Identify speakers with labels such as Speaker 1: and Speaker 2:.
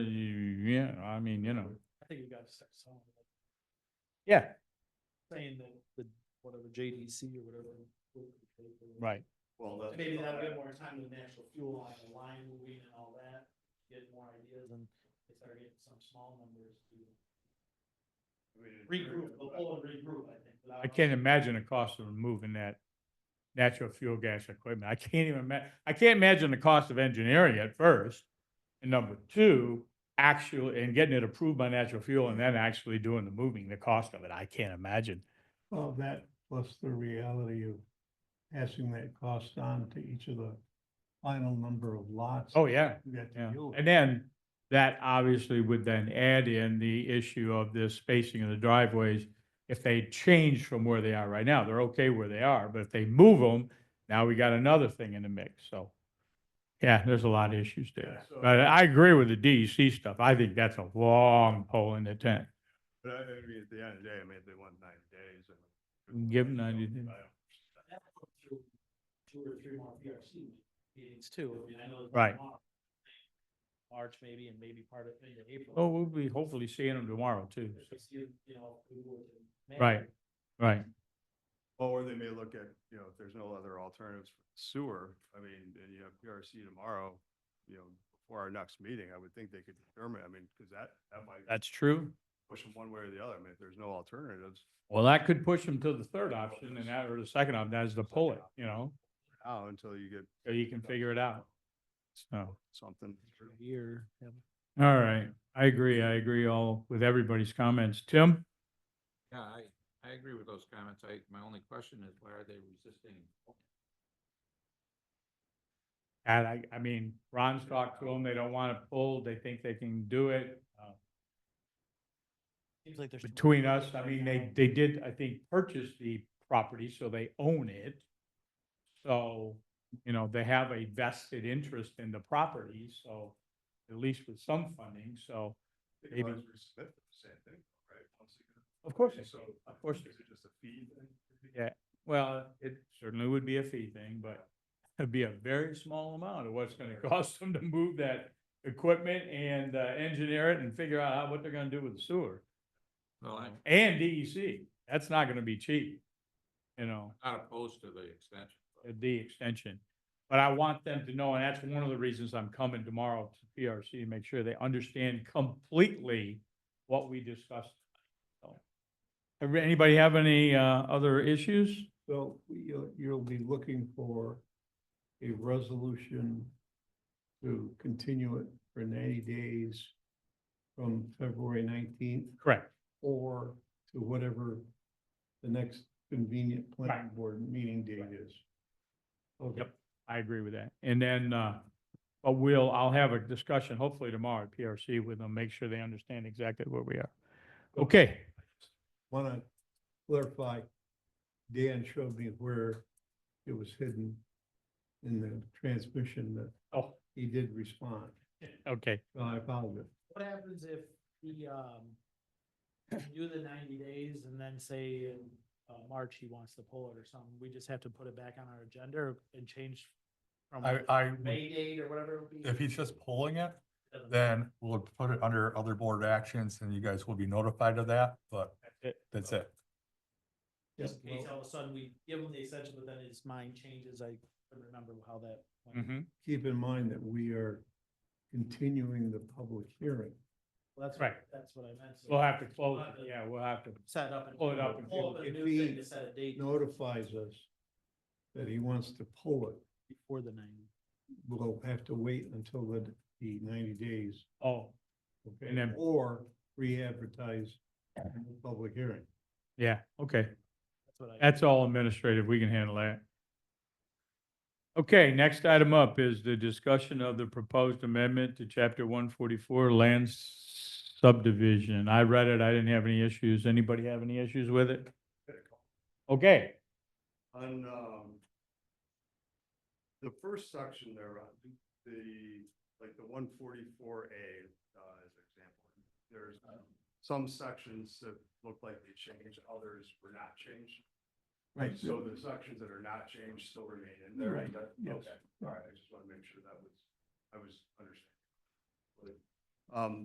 Speaker 1: Yeah, I mean, you know,
Speaker 2: I think you gotta start selling, it,
Speaker 1: yeah,
Speaker 2: saying that the, whatever JDC or whatever. will be paid for.
Speaker 1: right.
Speaker 3: Well,
Speaker 2: And
Speaker 3: that's.
Speaker 2: Maybe that'll get more time with the actual fuel on the line moving and all that, get more ideas and they start getting some small numbers to regroup, they'll pull and regroup, I think. without-
Speaker 1: I can't imagine the cost of removing that natural fuel gas equipment. I can't even ma- I can't imagine the cost of engineering at first. And number two, actually, and getting it approved by natural fuel and then actually doing the moving, the cost of it, I can't imagine.
Speaker 4: Well, that plus the reality of passing that cost on to each of the final number of lots.
Speaker 1: Oh, yeah.
Speaker 4: You got to
Speaker 1: Yeah,
Speaker 4: deal with.
Speaker 1: and then that obviously would then add in the issue of the spacing of the driveways. If they change from where they are right now, they're okay where they are, but if they move them, now we got another thing in the mix, so. Yeah, there's a lot of issues there,
Speaker 3: Yeah, so-
Speaker 1: but I agree with the DEC stuff. I think that's a long pole in the tent.
Speaker 3: But I I mean, at the end of the day, I mean, if they want ninety days. I mean,
Speaker 1: Mm, give 'em 90 days.
Speaker 3: I don't-
Speaker 2: That'll go through Two or three more PRC meetings too, I mean, I know. there's
Speaker 1: Right.
Speaker 2: one in March maybe, and maybe part of, maybe April.
Speaker 1: Oh, we'll be hopefully seeing them tomorrow too.
Speaker 2: If we see, you know, we would in May.
Speaker 1: Right. Right,
Speaker 3: Or they may look at, you know, if there's no other alternatives for sewer, I mean, and you have PRC tomorrow, you know, before our next meeting, I would think they could determine, I mean, because that, that might
Speaker 1: that's true.
Speaker 3: push them one way or the other. I mean, if there's no alternatives,
Speaker 1: Well, that could push them to the third option and that, or the second option, that is to pull it, you know,
Speaker 3: now until you get
Speaker 1: so you can figure it out. So.
Speaker 3: something.
Speaker 2: Year. yeah.
Speaker 1: All right, I agree, I agree all with everybody's comments. Tim?
Speaker 5: Yeah, I, I agree with those comments. I, my only question is why are they resisting?
Speaker 1: And I, I mean, Ron's talked to them, they don't want it pulled, they think they can do it. Uh,
Speaker 2: Seems like there's.
Speaker 1: Between us, I mean, they, they did, I think, purchase the property, so they own it. So, you know, they have a vested interest in the property, so at least with some funding, so
Speaker 3: They could
Speaker 1: Maybe.
Speaker 3: always resubmit the same thing, right? Once again.
Speaker 1: of course. they
Speaker 3: So,
Speaker 1: can. Of course.
Speaker 3: Is it just a fee thing?
Speaker 1: Yeah. Well, it certainly would be a fee thing, but it'd be a very small amount of what's gonna cost them to move that equipment and uh, engineer it and figure out how- what they're gonna do with the sewer.
Speaker 5: Well, I'm
Speaker 1: And DEC, that's not gonna be cheap, you know,
Speaker 5: not opposed to the extension. but
Speaker 1: the extension. But I want them to know, and that's one of the reasons I'm coming tomorrow to PRC to make sure they understand completely what we discussed. So, everybody- Anybody have any uh, other issues?
Speaker 4: So you'll, you'll be looking for a resolution to continue it for ninety days from February nineteenth
Speaker 1: Correct.
Speaker 4: or to whatever the next convenient planning board meeting date is. Okay.
Speaker 1: Yep. I agree with that. And then, uh, but we'll, I'll have a discussion hopefully tomorrow at PRC with them, make sure they understand exactly where we are. Okay,
Speaker 4: want to clarify, Dan showed me where it was hidden in the transmission that
Speaker 1: oh,
Speaker 4: he did respond.
Speaker 1: okay,
Speaker 4: So I apologize.
Speaker 2: What happens if he, um, do the ninety days and then say in, uh, March he wants to pull it or something? We just have to put it back on our agenda and change from
Speaker 6: I, I, would-
Speaker 2: May date or whatever it would be?
Speaker 6: if he's just pulling it,
Speaker 2: Doesn't matter.
Speaker 6: then we'll put it under other board actions and you guys will be notified of that, but
Speaker 1: it.
Speaker 6: that's it.
Speaker 2: Just in case all of a sudden we give him the extension, but then his mind changes. I couldn't remember how that. went.
Speaker 1: mhm,
Speaker 4: Keep in mind that we are continuing the public hearing.
Speaker 2: Well, That's
Speaker 1: Right.
Speaker 2: That's what I meant. so
Speaker 1: we'll have to close it, yeah, we'll have to,
Speaker 2: Set up and.
Speaker 1: Pull it up and
Speaker 2: Pull up a
Speaker 4: if
Speaker 2: new
Speaker 4: he
Speaker 2: thing to set a date
Speaker 4: Notifies us that he wants to pull it.
Speaker 2: before the ninety.
Speaker 4: We'll have to wait until the, the ninety days.
Speaker 1: oh,
Speaker 4: okay,
Speaker 1: And then-
Speaker 4: Or re-advertise the public hearing.
Speaker 1: yeah, okay.
Speaker 2: That's what I.
Speaker 1: That's all administrative, we can handle that. Okay, next item up is the discussion of the proposed amendment to chapter one forty-four land subdivision. I read it, I didn't have any issues. Anybody have any issues with it? Okay,
Speaker 3: On, um, the first section there, uh, the, like the one forty-four A, uh, as an example, there's um, some sections that look like they changed, others were not changed.
Speaker 4: Right.
Speaker 3: So the sections that are not changed still remain in there.
Speaker 4: Right,
Speaker 3: That-
Speaker 4: yes.
Speaker 3: Okay, all right, I just want to make sure that was, I was understanding. Um,